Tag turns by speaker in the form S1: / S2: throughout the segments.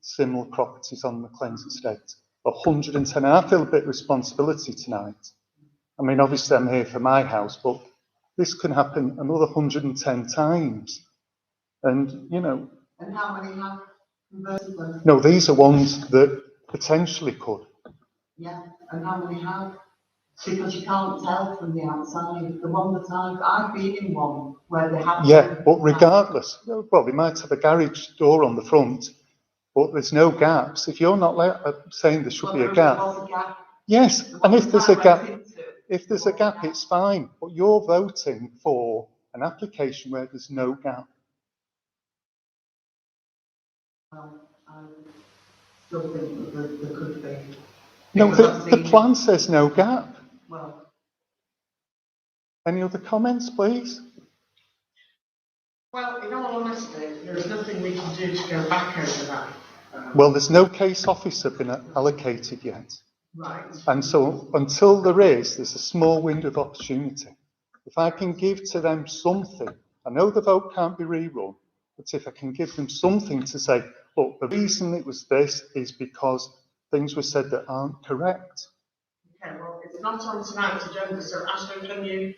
S1: similar properties on the claims estate. 110, and I feel a bit responsibility tonight. I mean, obviously I'm here for my house, but this can happen another 110 times. And, you know,
S2: And how many have converted them?
S1: no, these are ones that potentially could.
S2: Yeah, and how many have? Because you can't tell from the outside. The one that I've, I've been in one where they have.
S1: Yeah, but regardless, you know, well, they might have a garage door on the front, but there's no gaps. If you're not le- uh, saying there should
S2: Well,
S1: be a
S2: there
S1: gap,
S2: was a gap.
S1: yes,
S2: The
S1: and
S2: one
S1: if there's a
S2: that I
S1: gap,
S2: went into,
S1: if there's a gap, it's fine, but you're voting for an application where there's no gap.
S2: well, um, I Still think that there, there could be,
S1: No,
S2: Because
S1: the,
S2: I've
S1: the
S2: seen-
S1: plan says no gap.
S2: well.
S1: Any other comments, please?
S3: Well, in all honesty, there's nothing we can do to go back over that.
S2: Uh,
S3: um,
S1: Well, there's no case officer been allocated yet.
S3: Right,
S1: And so until there is, there's a small window of opportunity. If I can give to them something, I know the vote can't be rerun, but if I can give them something to say, look, the reason it was this is because things were said that aren't correct.
S3: okay, well, it's not on tonight's agenda, so Ashley, can you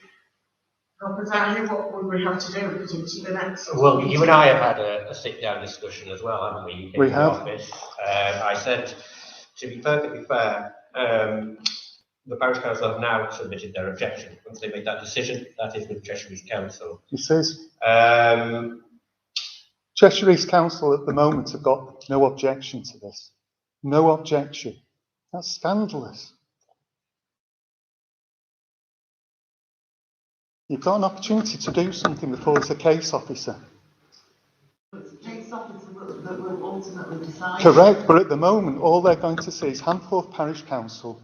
S3: help us out here? What would we have to do? Because it's the next.
S4: Well, you and I have had a, a sit-down discussion as well, haven't we? in
S1: We
S4: the
S1: have.
S4: office? Um, I said, to be perfectly fair, um, the parish council have now submitted their objection. Once they make that decision, that is with Cheshire East Council.
S1: It says
S4: Um,
S1: Cheshire East Council at the moment have got no objection to this. No objection. That's scandalous. You've got an opportunity to do something before there's a case officer.
S2: It's police officers that, that will ultimately decide.
S1: Correct, but at the moment, all they're going to see is Hanforth Parish Council,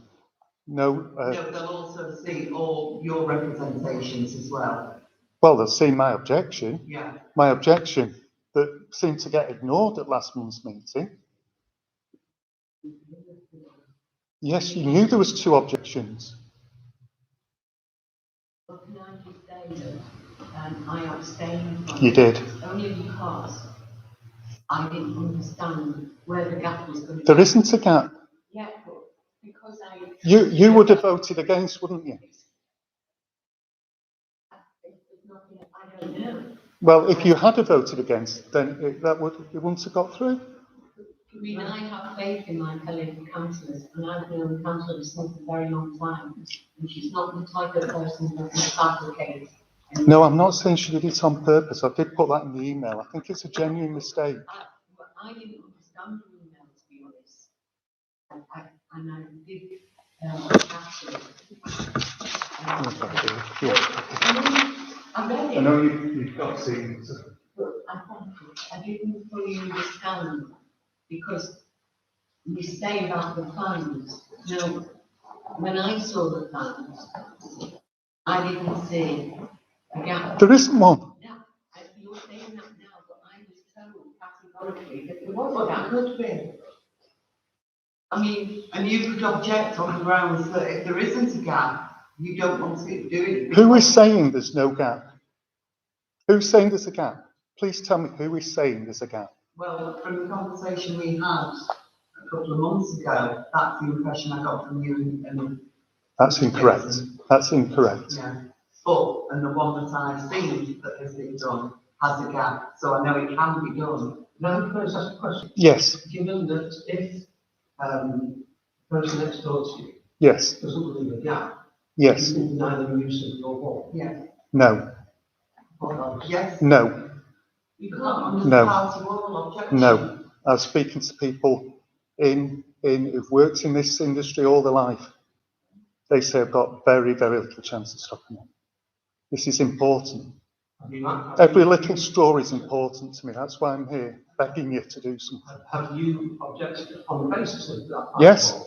S1: no, uh,
S2: No, they'll also see all your representations as well,
S1: well, they'll see my objection,
S2: yeah.
S1: my objection that seemed to get ignored at last month's meeting. Yes, you knew there was two objections.
S5: Well, can I just say that um, I abstained from
S1: You did.
S5: it Only because I didn't understand where the gap was going to be.
S1: There isn't a gap.
S5: Yeah, but because I.
S1: You, you would have voted against, wouldn't you?
S5: There's nothing- I don't know.
S1: Well, if you had have voted against, then it, that would, it wouldn't have got through.
S5: I mean, I have faith in my fellow councillors and I've been on council for a very long time. And she's not the type of person that will fabricate. and-
S1: No, I'm not saying she did it on purpose. I did put that in the email. I think it's a genuine mistake.
S5: I, well, I didn't understand the email, to be honest. And I, and I did, um, actually. um, I read it,
S1: you, you've got scenes.
S5: but I think I didn't fully understand because you say about the funds. Now, when I saw the funds, I didn't see a gap.
S1: There isn't one.
S5: Now, I- you're saying that now, but I was told categorically that there was a gap.
S2: could be. I mean, and you could object on the grounds that if there isn't a gap, you don't want to do it.
S1: Who is saying there's no gap? Who's saying there's a gap? Please tell me who is saying there's a gap.
S2: Well, from the conversation we had a couple of months ago, that's the impression I got from you and- and,
S1: That's incorrect. That's incorrect.
S2: yeah. But, and the one that I've seen that has been done has a gap, so I know it can be done.
S6: Now, can I just ask a question?
S1: Yes,
S6: Given that if, um, the person next door to you
S1: yes,
S6: doesn't leave a gap,
S1: yes.
S6: you can deny them use of your wall.
S2: Yeah,
S1: No,
S2: yes.
S1: no,
S2: You can't under
S1: No.
S2: the party wall objection.
S1: no. I was speaking to people in, in, who've worked in this industry all their life. They say I've got very, very little chance of stopping it. This is important.
S6: Have you, have
S1: Every
S6: you,
S1: little story is important to me. That's why I'm here begging you to do something.
S6: have you objected on the basis of that?
S1: Yes.
S6: Have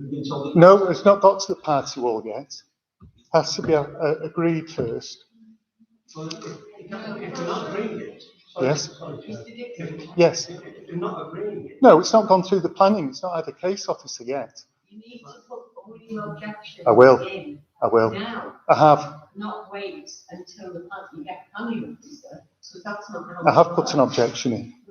S6: you been told that?
S1: No, it's not got to the party wall yet. Has to be uh, uh, agreed first.
S6: Well, if- if if you're not agreeing it. sorry,
S1: Yes.
S6: sorry, just- If
S1: Yes.
S6: if- if you're not agreeing it,
S1: No, it's not gone through the planning. It's not had a case officer yet.
S5: You need to put all your objections.
S1: I will.
S5: in
S1: I will.
S5: Now,
S1: I have.
S5: not wait until the party get planning officer, so that's not how.
S1: I have
S5: it
S1: put an
S5: works.
S1: objection in.